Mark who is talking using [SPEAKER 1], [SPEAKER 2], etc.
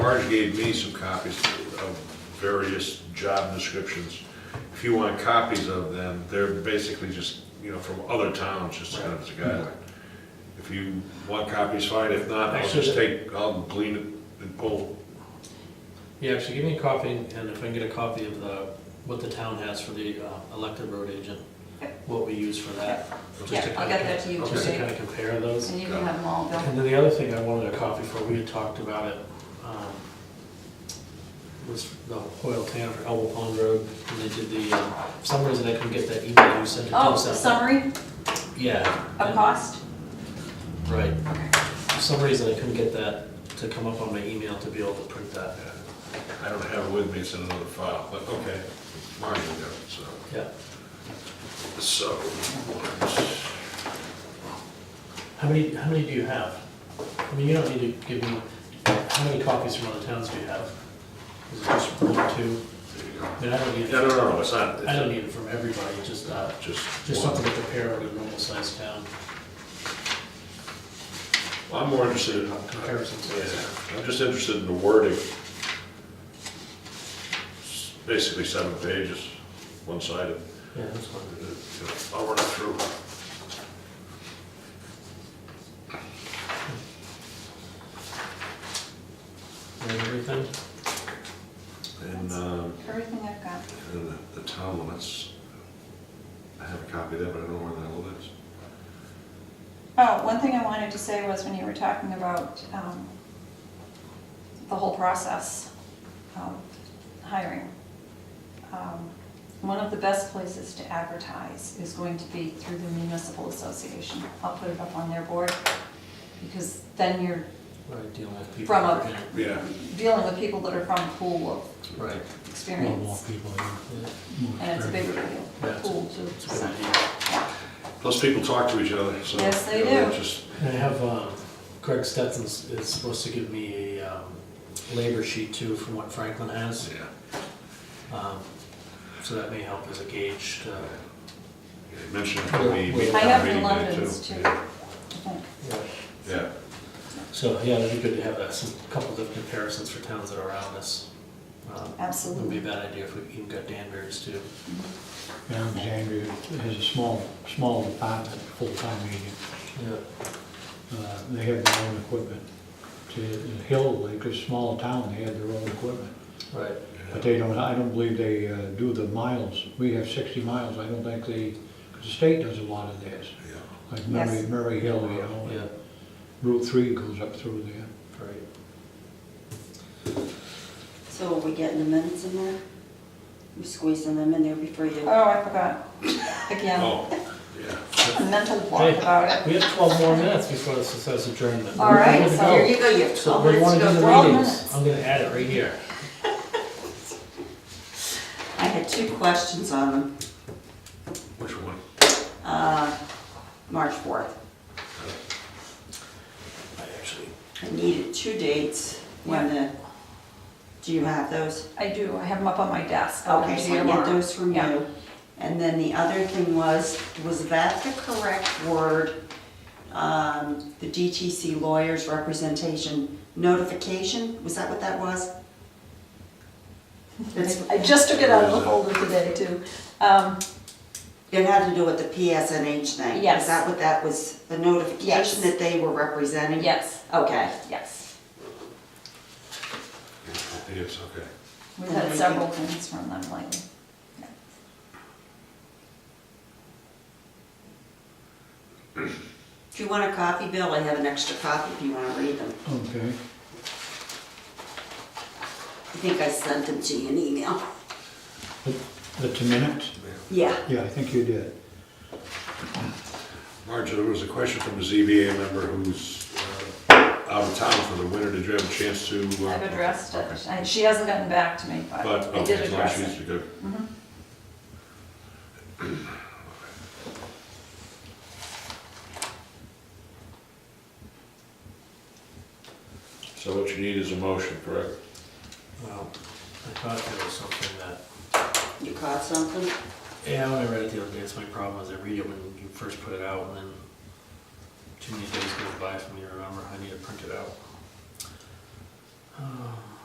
[SPEAKER 1] Marge gave me some copies of various job descriptions. If you want copies of them, they're basically just, you know, from other towns, just kind of as a guideline. If you want copies, fine, if not, I'll just take, I'll glean it and pull.
[SPEAKER 2] Yeah, actually, give me a copy, and if I can get a copy of the, what the town has for the uh, elected road agent, what we use for that. just
[SPEAKER 3] Yeah,
[SPEAKER 2] to
[SPEAKER 3] I'll
[SPEAKER 2] kinda-
[SPEAKER 3] get that to you
[SPEAKER 2] Just to
[SPEAKER 3] today.
[SPEAKER 2] kind of compare those.
[SPEAKER 3] And you can have them all, Bill.
[SPEAKER 2] And then the other thing I wanted a copy for, we had talked about it, um, was the Hoyle Town or Elbow Pond Road, and they did the, um, for some reason I couldn't get that email you sent it to
[SPEAKER 3] Oh,
[SPEAKER 2] us.
[SPEAKER 3] the
[SPEAKER 2] out.
[SPEAKER 3] summary
[SPEAKER 2] Yeah.
[SPEAKER 3] of cost?
[SPEAKER 2] Right.
[SPEAKER 3] Okay.
[SPEAKER 2] For some reason I couldn't get that to come up on my email to be able to print that.
[SPEAKER 1] I don't have it with me, it's in another file, but okay, Marge will get it, so.
[SPEAKER 2] Yeah.
[SPEAKER 1] So,
[SPEAKER 2] How many, how many do you have? I mean, you don't need to give me, how many copies from other towns do you have? Is it just one or two?
[SPEAKER 1] there you go.
[SPEAKER 2] I mean, I don't need,
[SPEAKER 1] No,
[SPEAKER 2] it-
[SPEAKER 1] no, no, it's not.
[SPEAKER 2] I don't need it from everybody, just, uh,
[SPEAKER 1] Just.
[SPEAKER 2] just
[SPEAKER 1] one.
[SPEAKER 2] something to compare with a normal sized town,
[SPEAKER 1] I'm more interested in,
[SPEAKER 2] comparison size.
[SPEAKER 1] yeah, I'm just interested in the wording. It's Basically seven pages, one-sided.
[SPEAKER 2] Yeah, that's fine.
[SPEAKER 1] I'll run it Oh, through.
[SPEAKER 2] And everything?
[SPEAKER 1] And, um,
[SPEAKER 3] Everything I've got.
[SPEAKER 1] and the- the town limits, I have a copy of that, but I don't know where the hell it is.
[SPEAKER 3] Oh, one thing I wanted to say was when you were talking about um, the whole process of hiring, um, one of the best places to advertise is going to be through the municipal association. I'll put it up on their board because then you're
[SPEAKER 2] Right, dealing with people.
[SPEAKER 3] From a-
[SPEAKER 2] yeah,
[SPEAKER 1] Yeah.
[SPEAKER 3] dealing with people that are from a pool
[SPEAKER 2] Right.
[SPEAKER 3] of
[SPEAKER 4] A lot more
[SPEAKER 3] experience.
[SPEAKER 4] people in.
[SPEAKER 3] And it's a big
[SPEAKER 2] Yeah.
[SPEAKER 3] pool too.
[SPEAKER 2] It's a good
[SPEAKER 3] so.
[SPEAKER 2] idea.
[SPEAKER 1] Plus people talk to each other, so.
[SPEAKER 3] Yes, they
[SPEAKER 1] you know,
[SPEAKER 3] do.
[SPEAKER 1] Just,
[SPEAKER 2] And I have, um, Greg Stetson is supposed to give me a um, labor sheet too from what Franklin has.
[SPEAKER 1] yeah.
[SPEAKER 2] Um, So that may help as a gauge to,
[SPEAKER 1] You Mentioned it could be.
[SPEAKER 2] I
[SPEAKER 3] I have the
[SPEAKER 1] meeting day,
[SPEAKER 3] Londons too, I
[SPEAKER 1] Yeah.
[SPEAKER 3] think.
[SPEAKER 1] Yeah.
[SPEAKER 2] so, yeah, it'd be good to have that, some, couple of comparisons for towns that are around us. Um, Wouldn't be a
[SPEAKER 3] Absolutely.
[SPEAKER 2] bad idea if we even got Danbury's too.
[SPEAKER 4] Alexandria has a small, small department, full-time agent.
[SPEAKER 2] Yeah.
[SPEAKER 4] Uh, They have their own equipment. To the Hill, like a small town, they had their own equipment.
[SPEAKER 2] Right.
[SPEAKER 4] But they don't, I don't believe they uh, do the miles. We have 60 miles, I don't think they, 'cause the state does a lot of theirs.
[SPEAKER 1] Yeah.
[SPEAKER 4] Like Murray,
[SPEAKER 3] Yes.
[SPEAKER 4] Murray Hill, you know,
[SPEAKER 2] Yeah,
[SPEAKER 4] Route 3 goes up through there.
[SPEAKER 2] right.
[SPEAKER 5] So are we getting the minutes in there? We squeezing them in there before you,
[SPEAKER 3] Oh, I forgot. Again,
[SPEAKER 1] Oh, yeah.
[SPEAKER 3] a mental block about it.
[SPEAKER 2] We have twelve more minutes before this says adjournment.
[SPEAKER 3] All right, so
[SPEAKER 5] here you go, you have
[SPEAKER 2] So
[SPEAKER 5] twelve
[SPEAKER 2] what do you wanna
[SPEAKER 5] minutes to
[SPEAKER 2] do in
[SPEAKER 5] go.
[SPEAKER 2] the
[SPEAKER 3] Twelve
[SPEAKER 2] readings?
[SPEAKER 3] minutes.
[SPEAKER 2] I'm gonna add it right here.
[SPEAKER 5] I had two questions on them,
[SPEAKER 1] Which one?
[SPEAKER 5] uh, March fourth.
[SPEAKER 2] I actually.
[SPEAKER 5] I needed two dates, when the, do you have those?
[SPEAKER 3] I do, I have them up on my desk. I'll
[SPEAKER 5] Okay,
[SPEAKER 3] give
[SPEAKER 5] so
[SPEAKER 3] you
[SPEAKER 5] I
[SPEAKER 3] Oh, tomorrow.
[SPEAKER 5] get those from
[SPEAKER 3] Yeah.
[SPEAKER 5] you. And then the other thing was, was that the correct word? Um, the DTC lawyers representation notification, was that what that was? It's-
[SPEAKER 3] I just took it out of the folder today too. Um,
[SPEAKER 5] It had to do with the PSNH thing?
[SPEAKER 3] Yes.
[SPEAKER 5] Is that what that was, the
[SPEAKER 3] Yes.
[SPEAKER 5] notification that they were representing?
[SPEAKER 3] yes,
[SPEAKER 5] Okay.
[SPEAKER 3] yes.
[SPEAKER 1] Yes, okay.
[SPEAKER 3] We've had several things from them lately.
[SPEAKER 5] Do you want a copy, Bill? I have an extra copy if you want to read them.
[SPEAKER 4] Okay.
[SPEAKER 5] I think I sent them to you in email.
[SPEAKER 4] But but the minutes?
[SPEAKER 5] Yeah.
[SPEAKER 4] Yeah, I think you did.
[SPEAKER 1] Marge, there was a question from a ZBA member who's uh, out of town for the winter. Did you have a chance to? uh,
[SPEAKER 3] I've addressed it.
[SPEAKER 1] Okay.
[SPEAKER 3] I- She hasn't gotten back to me, but
[SPEAKER 1] But,
[SPEAKER 3] I
[SPEAKER 1] okay,
[SPEAKER 3] did
[SPEAKER 1] as long as
[SPEAKER 3] address it. Mm-hmm.
[SPEAKER 1] she's good. So what you need is a motion, correct?
[SPEAKER 2] Well, I thought there was something that
[SPEAKER 5] You caught something?
[SPEAKER 2] Yeah, when I read it the other day, that's my problem, is I read it when you first put it out, and then too many days goes by for me to remember, I need to print it out. Um,